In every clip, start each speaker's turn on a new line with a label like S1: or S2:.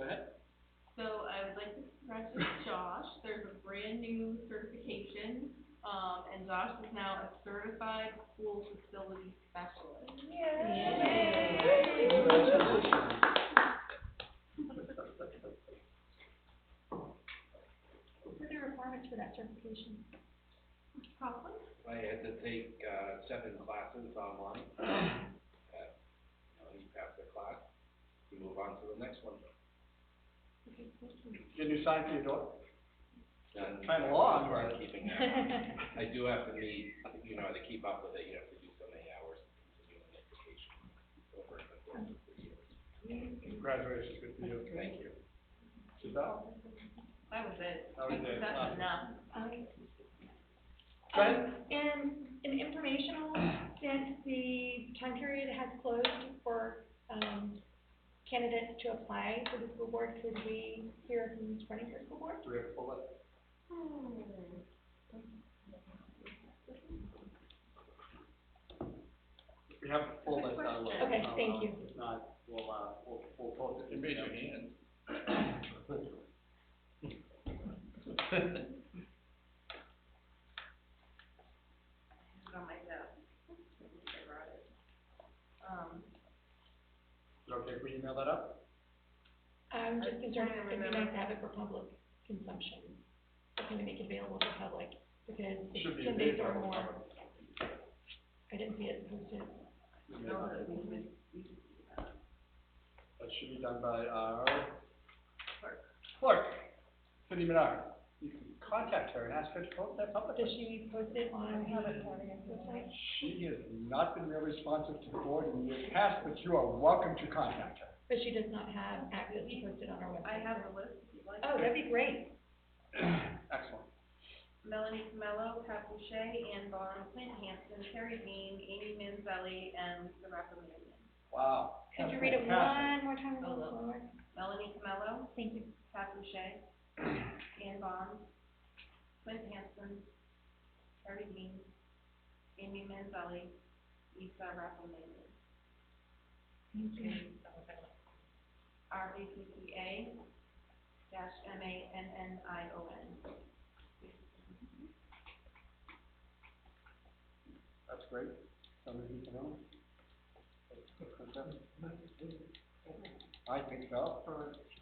S1: ahead.
S2: So I would like to congratulate Josh, there's a brand new certification, um, and Josh is now a certified school facility specialist.
S3: What are the requirements for that certification?
S2: Probably.
S1: I had to take, uh, seven classes online. Uh, you know, You pass the class, you move on to the next one.
S4: Get new sign for your door.
S1: And
S4: Kinda long,
S1: as far as
S4: but-
S1: Keeping that, I do have to meet, you know, to keep up with it, you have to do so many hours of continuing education over the course of three years.
S4: Congratulations, good for you.
S1: Thank you.
S4: Giselle?
S2: That was it.
S4: That was it.
S2: That's enough.
S3: Um,
S4: Go ahead.
S3: And an informational, since the time period has closed for, um, candidates to apply for the school board, could we hear who's running for school board?
S4: Do we have a full list? We have a full list, I will.
S3: Okay,
S4: I'll,
S3: thank
S4: uh,
S3: you.
S4: If not, we'll, uh, we'll, we'll post it.
S1: hand.
S2: It's on my desk. I brought it. Um,
S4: Is it okay if we email that up?
S3: Um, just in terms of, it'd be nice
S2: Remember.
S3: to have it for public consumption, something to make available to the public, because
S4: Should be
S3: ten days
S4: available to
S3: or
S4: the
S3: more. I didn't see it posted.
S2: no, that we missed, we missed that.
S4: That should be done by our clerk, Cindy Menard. You can contact her and ask her to post that
S3: Does
S4: publicly.
S3: she post it on her website?
S4: She has not been very responsive to the board in years past, but you are welcome to contact her.
S3: But she does not have access to post it on our
S2: I
S3: website.
S2: have the list if you'd like.
S3: Oh, that'd be great.
S4: Excellent.
S2: Melanie Camello, Pat Boucher, Ann Vaughn, Clint Hansen, Terry Dean, Amy Manzelli, and Lisa Rappamanian.
S4: Wow.
S3: Could you
S4: That's
S3: read it
S4: fantastic.
S3: one more time, a
S2: Oh,
S3: little
S2: no.
S3: slower?
S2: Melanie Camello,
S3: Thank you.
S2: Pat Boucher, Ann Vaughn, Clint Hansen, Terry Dean, Amy Manzelli, Lisa Rappamanian. R A P P A dash M A N N I O N.
S4: That's great. Somebody who can own. I think so.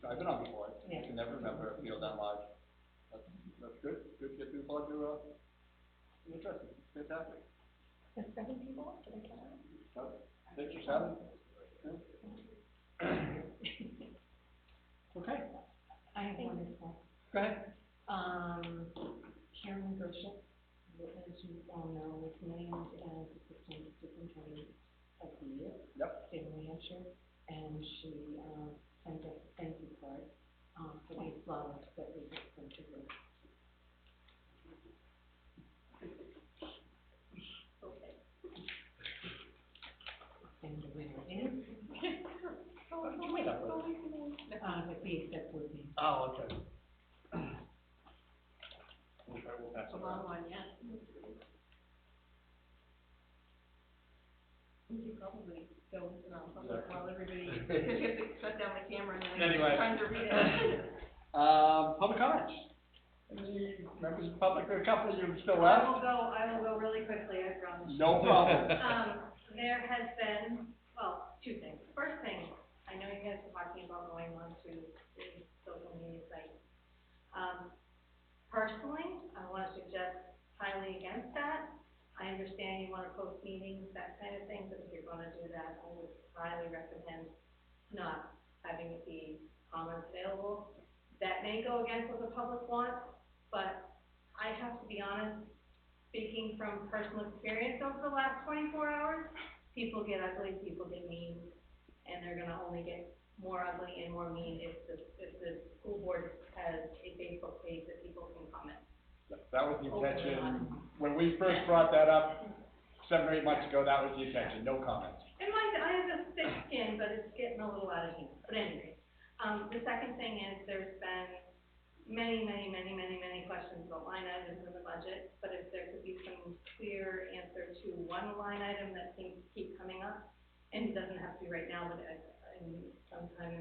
S4: I've been on before. I can never remember a field that large. That's, that's good. Good to get people to, uh, be interested. Fantastic.
S3: That's seven people, did I count that?
S4: Well, Six or seven? Yeah. Okay,
S5: I have
S3: Thank
S5: one as well.
S4: go ahead.
S5: Um, Karen Gerschel, who, as you all know, was named as Assistant Superintendent of the Year.
S4: Yep.
S5: State of New Hampshire, and she, um, sent us thank you card, um, for the flowers that we had sent to her. And the winner is,
S3: Oh,
S4: You made up for it.
S5: uh, the B except for me.
S4: Oh, okay. We'll try, we'll pass
S2: It's a
S4: it around.
S2: long one, yeah. We could probably go, uh, you know,
S4: Exactly.
S2: while everybody, because you have to shut down the camera and then
S4: Anyway.
S2: it's time to read it.
S4: Um, public comments? Any members of the public, there are a couple of you still
S6: I
S4: left?
S6: will go, I will go really quickly, I promise.
S4: No problem.
S6: Um, there has been, well, two things. First thing, I know you guys were talking about going on to the social media site. Um, personally, I wanna suggest highly against that. I understand you wanna post meetings, that kind of thing, but if you're gonna do that, I would highly recommend not having it be comments available. That may go against what the public wants, but I have to be honest, speaking from personal experience over the last twenty-four hours, people get ugly, people get mean, and they're gonna only get more ugly and more mean if the, if the school board has a Facebook page that people can comment.
S4: That was the
S6: Open
S4: intention,
S6: on.
S4: when we first brought that up, seven or eight months ago, that was the intention, no comments.
S6: And mind, I have a thick skin, but it's getting a little out of hand, but anyway. Um, the second thing is, there's been many, many, many, many, many questions about line items in the budget, but if there could be some clear answer to one line item that seems to keep coming up, and it doesn't have to be right now, but, uh, in sometime in